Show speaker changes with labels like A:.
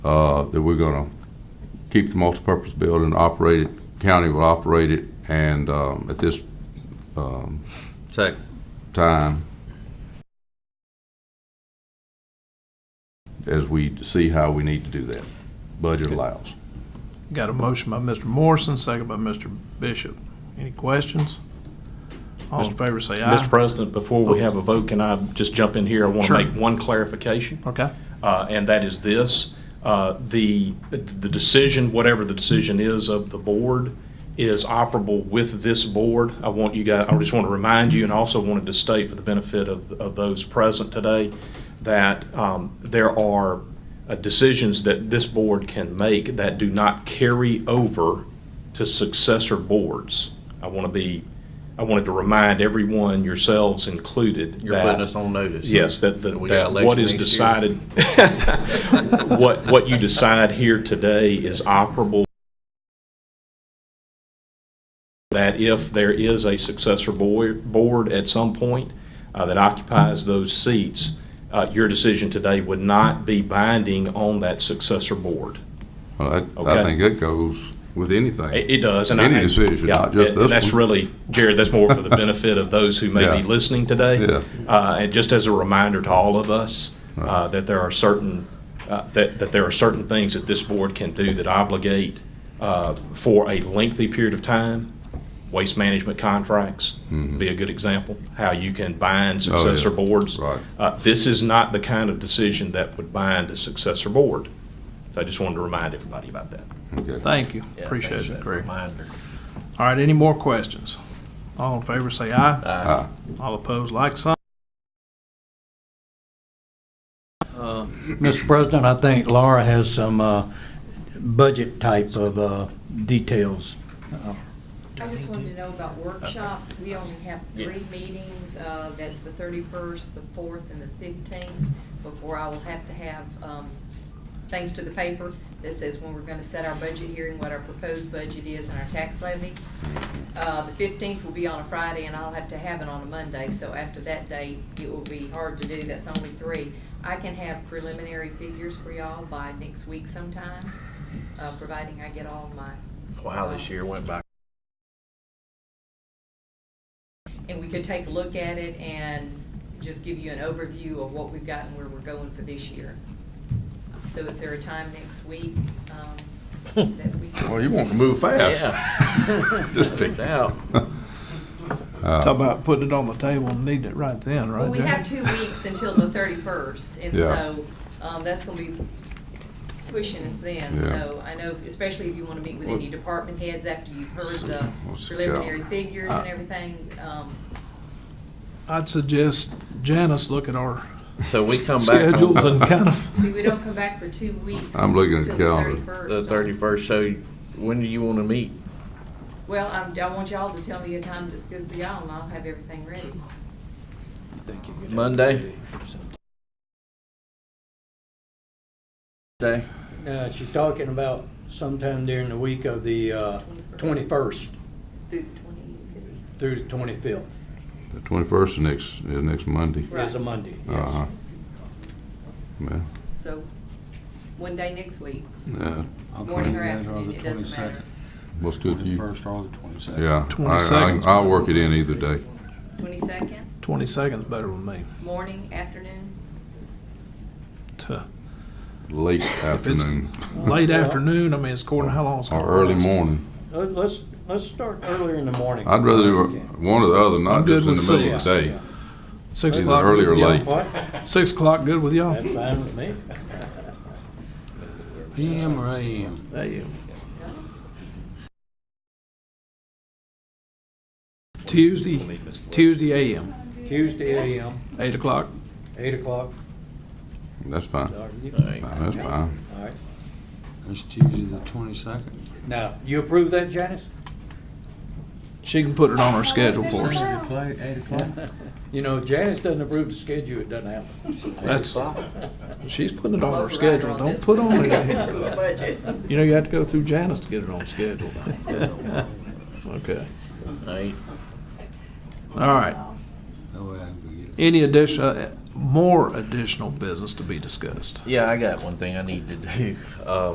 A: uh, that we're gonna keep the multipurpose building, operate it, county will operate it, and, um, at this um,
B: Second.
A: time, as we see how we need to do that, budget allows.
C: Got a motion by Mr. Morrison, second by Mr. Bishop. Any questions? All in favor, say
D: Mr.
C: aye.
D: President, before we have a vote, can I just jump in here? I want
C: Sure.
D: to make one clarification,
C: Okay,
D: uh, and that is this. Uh, The, the decision, whatever the decision is of the board, is operable with this board. I want you guys, I just want to remind you, and also wanted to state for the benefit of, of those present today, that um, there are uh, decisions that this board can make that do not carry over to successor boards. I want to be, I wanted to remind everyone, yourselves included,
B: You're putting us
D: that,
B: on notice.
D: yes, that, that
B: We got
D: that what
B: election
D: is
B: next year.
D: decided, what, what you decide here today is operable. That if there is a successor board, board at some point uh, that occupies those seats, uh, your decision today would not be binding on that successor board.
A: Well, I, I
D: Okay.
A: think that goes with anything.
D: It, it does, and I.
A: Any decision,
D: yeah,
A: not just
D: and-
A: this
D: and That's
A: one.
D: really, Jared, that's more for the benefit of those who may
A: Yeah.
D: be listening today.
A: Yeah.
D: Uh, and just as a reminder to all of us, uh, that there are certain, uh, that, that there are certain things that this board can do that obligate, uh, for a lengthy period of time. Waste management contracts be a good example, how you can bind
A: Mm-hmm. Oh, yeah.
D: successor boards.
A: Right.
D: Uh, this is not the kind of decision that would bind a successor board. So I just wanted to remind everybody about that.
A: Okay.
C: thank you.
B: Yeah,
C: Appreciate
B: thanks for
C: it,
B: that
C: Greg.
B: Reminder.
C: All right, any more questions? All in favor, say aye.
A: Aye.
C: All opposed, like sign.
E: Mr. President, I think Laura has some uh, budget type of uh, details.
F: I just wanted to know about workshops. We only have three meetings, uh, that's the thirty-first, the fourth, and the fifteenth, before I will have to have, um, things to the paper that says when we're gonna set our budget hearing, what our proposed budget is and our tax levy. Uh, the fifteenth will be on a Friday, and I'll have to have it on a Monday, so after that date, it will be hard to do, that's only three. I can have preliminary figures for y'all by next week sometime, uh, providing I get all my. uh,
B: Wow, this year went by.
F: and we could take a look at it and just give you an overview of what we've got and where we're going for this year. So is there a time next week um, that we could?
A: Well, you want to move fast.
B: Yeah.
A: Just Uh, pick.
B: Checked out.
C: Talk about putting it on the table and needing it right then,
F: Well,
C: right,
F: we have
C: Jared?
F: two weeks until the thirty-first, and
A: Yeah.
F: so um, that's going to be pushing us then.
A: Yeah.
F: So I know, especially if you want to meet with any department heads after you've heard the
A: Let's see.
F: preliminary figures and everything. um,
C: I'd suggest Janice look at our
B: So we come back
C: schedules
B: on
C: and kind of,
F: See, we don't come back for two weeks.
A: I'm looking at the
F: until
A: calendar.
F: 31st.
B: the thirty-first, so when do you want to meet?
F: Well, I'm, I want y'all to tell me a time that's good for y'all, and I'll have everything ready.
B: Monday? Day?
E: Uh, She's talking about sometime during the week of the uh, 21st
F: Through the
E: through the
F: twenty-fifth.
E: 25th,
A: The twenty-first is next, is next Monday.
E: is a Monday,
A: Uh-huh.
E: yes.
A: Yeah.
F: So, one day next week,
A: Yeah.
G: I'll
F: morning or
G: put it
F: afternoon,
G: the
F: it doesn't matter.
G: 22nd.
A: What's good to you?
G: First or the twenty-second.
A: Yeah. I- I-
C: 22nd.
A: I'll work it in either day.
F: Twenty-second,
C: twenty seconds better with me.
F: morning, afternoon,
C: Tuh.
A: Late
C: If it's
A: afternoon
C: late afternoon, I mean, it's according to how long it's going
A: or
C: to
A: early
C: last.
A: morning.
E: Let- Let's, let's start earlier in the morning.
A: I'd rather do
E: Okay.
A: one or the other,
C: I'm
A: not
C: good
A: just in
C: with
A: the middle of
C: six.
A: the day.
C: Six
A: Either
C: o'clock.
A: early or
C: yeah.
A: late.
E: What?
C: Six o'clock, good with y'all?
E: That's fine with me.
G: PM or AM?
C: There you. Tuesday, Tuesday AM,
E: Tuesday AM,
C: eight o'clock.
E: 8 o'clock.
A: That's fine.
E: All
B: Alright.
A: Nah, That's fine.
E: right.
G: That's Tuesday, the twenty-second.
E: Now, you approve that, Janice?
C: She can put it on her schedule for us.
G: o'clock, eight o'clock.
E: You know, if Janice doesn't approve the schedule, it doesn't happen.
C: That's, she's putting it on her
F: Overrider
C: schedule.
F: on
C: Don't
F: this
C: put on
F: the
C: it.
F: budget.
C: You know, you have to go through Janice to get it on schedule. Okay,
B: Eight.
C: all right.
G: Oh, yeah, we get it.
C: Any addition, more additional business to be discussed.
B: Yeah, I got one thing I need to do. Uh,